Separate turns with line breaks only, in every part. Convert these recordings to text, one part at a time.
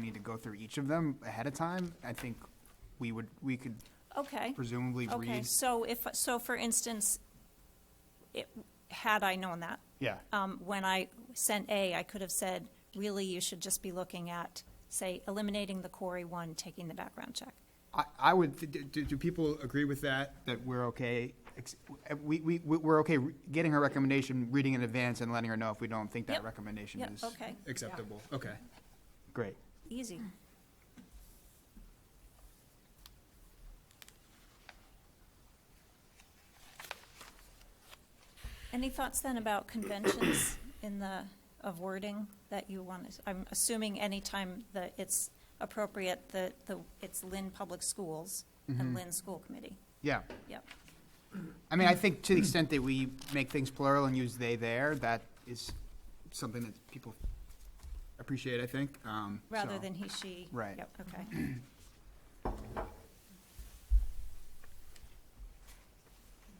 need to go through each of them ahead of time, I think we would, we could
Okay.
presumably
Okay,
read.
so if, so for instance, it, had I known that,
Yeah,
um, when I sent A, I could have said, really, you should just be looking at, say, eliminating the quarry one, taking the background check.
I, I would, do, do do people agree with that, that we're okay? ex- We, we, we're okay re- getting her recommendation, reading in advance and letting her know if we don't think that
Yep.
recommendation
Yep,
is
okay.
acceptable. Okay, great.
Easy. Any thoughts then about conventions in the, of wording that you want? to- I'm assuming anytime that it's appropriate, that the, it's Lynn Public Schools and Lynn School Committee.
Yeah.
Yep,
I mean, I think to the extent that we make things plural and use they there, that is something that people appreciate, I think. Um,
rather
so-
than he, she.
Right.
Yep, okay.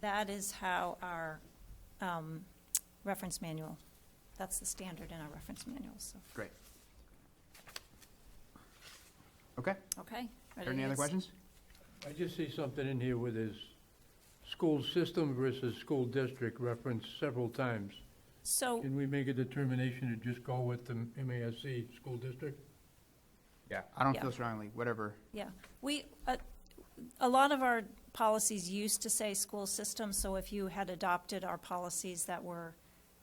That is how our um, reference manual, that's the standard in our reference manual, so,
Great. Okay,
okay.
are
ready
there any
to
other
s-
questions?
I just see something in here with his school system versus school district referenced several times.
So,
Can we make a determination to just go with the MASC school district?
Yeah. I don't
Yeah.
feel strongly, whatever.
yeah, we, uh, a lot of our policies used to say school system, so if you had adopted our policies that were,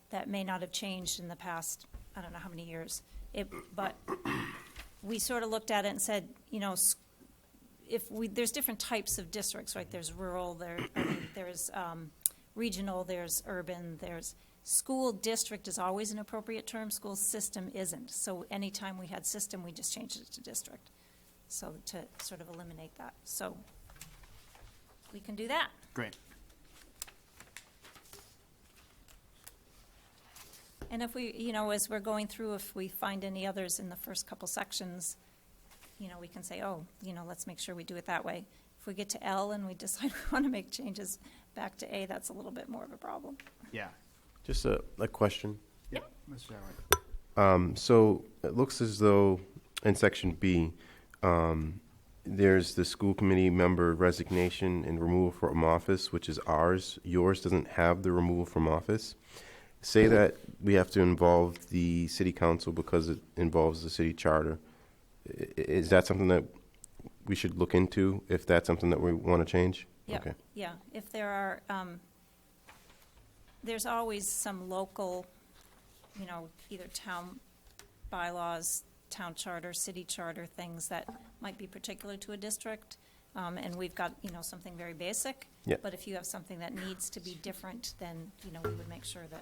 that may not have changed in the past, I don't know how many years, it, but we sort of looked at it and said, you know, s- if we, there's different types of districts, right? There's rural, there, I mean, there's um, regional, there's urban, there's, school district is always an appropriate term, school system isn't. So anytime we had system, we just changed it to district, so to sort of eliminate that. So we can do that.
Great.
And if we, you know, as we're going through, if we find any others in the first couple sections, you know, we can say, oh, you know, let's make sure we do it that way. If we get to L and we decide we want to make changes back to A, that's a little bit more of a problem.
Yeah.
Just a, a question.
Yeah. Mr. Chadwick.
Um, so it looks as though in section B, um, there's the school committee member resignation and removal from office, which is ours. Yours doesn't have the removal from office. Say that we have to involve the city council because it involves the city charter. I- i- Is that something that we should look into if that's something that we want to change?
Yeah,
Okay.
yeah, if there are, um, there's always some local, you know, either town bylaws, town charter, city charter, things that might be particular to a district. Um, and we've got, you know, something very basic.
Yeah.
But if you have something that needs to be different, then, you know, we would make sure that,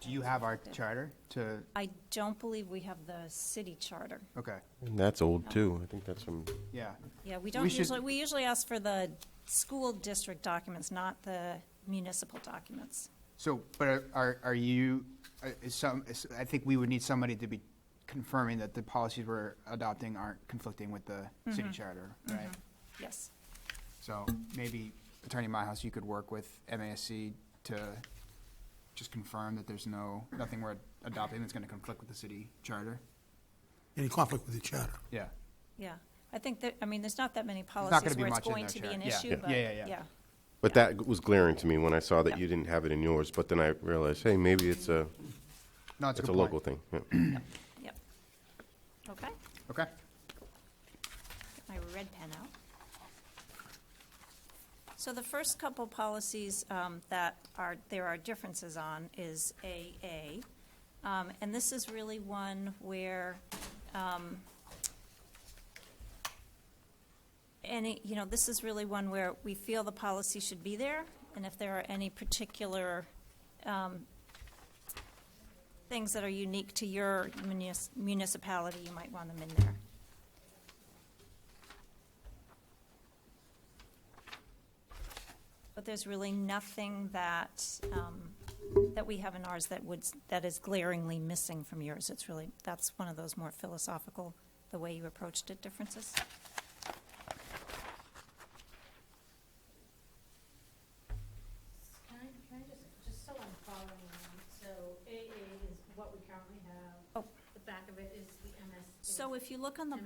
Do you have our charter to,
I don't believe we have the city charter.
okay,
And that's old too. I think that's from.
yeah.
Yeah, we
We
don't
should-
usually, we usually ask for the school district documents, not the municipal documents.
So, but are- are, are you, are- is some, is- I think we would need somebody to be confirming that the policies we're adopting aren't conflicting with the city charter, right?
Yes.
So maybe Attorney Myhouse, you could work with MASC to just confirm that there's no, nothing we're adopting that's gonna conflict with the city charter?
any conflict with each other.
Yeah.
Yeah, I think that, I mean, there's not that many
gonna
policies
be
where it's
much in
going
there,
to be
Sharon.
an
Yeah.
issue,
Yeah.
but,
Yeah, yeah, yeah.
yeah,
But
Yeah.
that was glaring to me when I saw that
Yeah.
you didn't have it in yours. But then I realized, hey, maybe it's a
No, it's a
it's a
good
local
point.
thing. Yeah.
yep. Okay,
Okay.
get my red pen out. So the first couple policies um, that are, there are differences on is AA. Um, And this is really one where um, any, you know, this is really one where we feel the policy should be there, and if there are any particular um, things that are unique to your munis- municipality, you might want them in there. But there's really nothing that, um, that we have in ours that would, that is glaringly missing from yours. It's really, that's one of those more philosophical, the way you approached it differences.
Can I, can I just, just so I'm following along, so AA is what we currently have.
Oh.
The back of it is the MS.
So if you look on the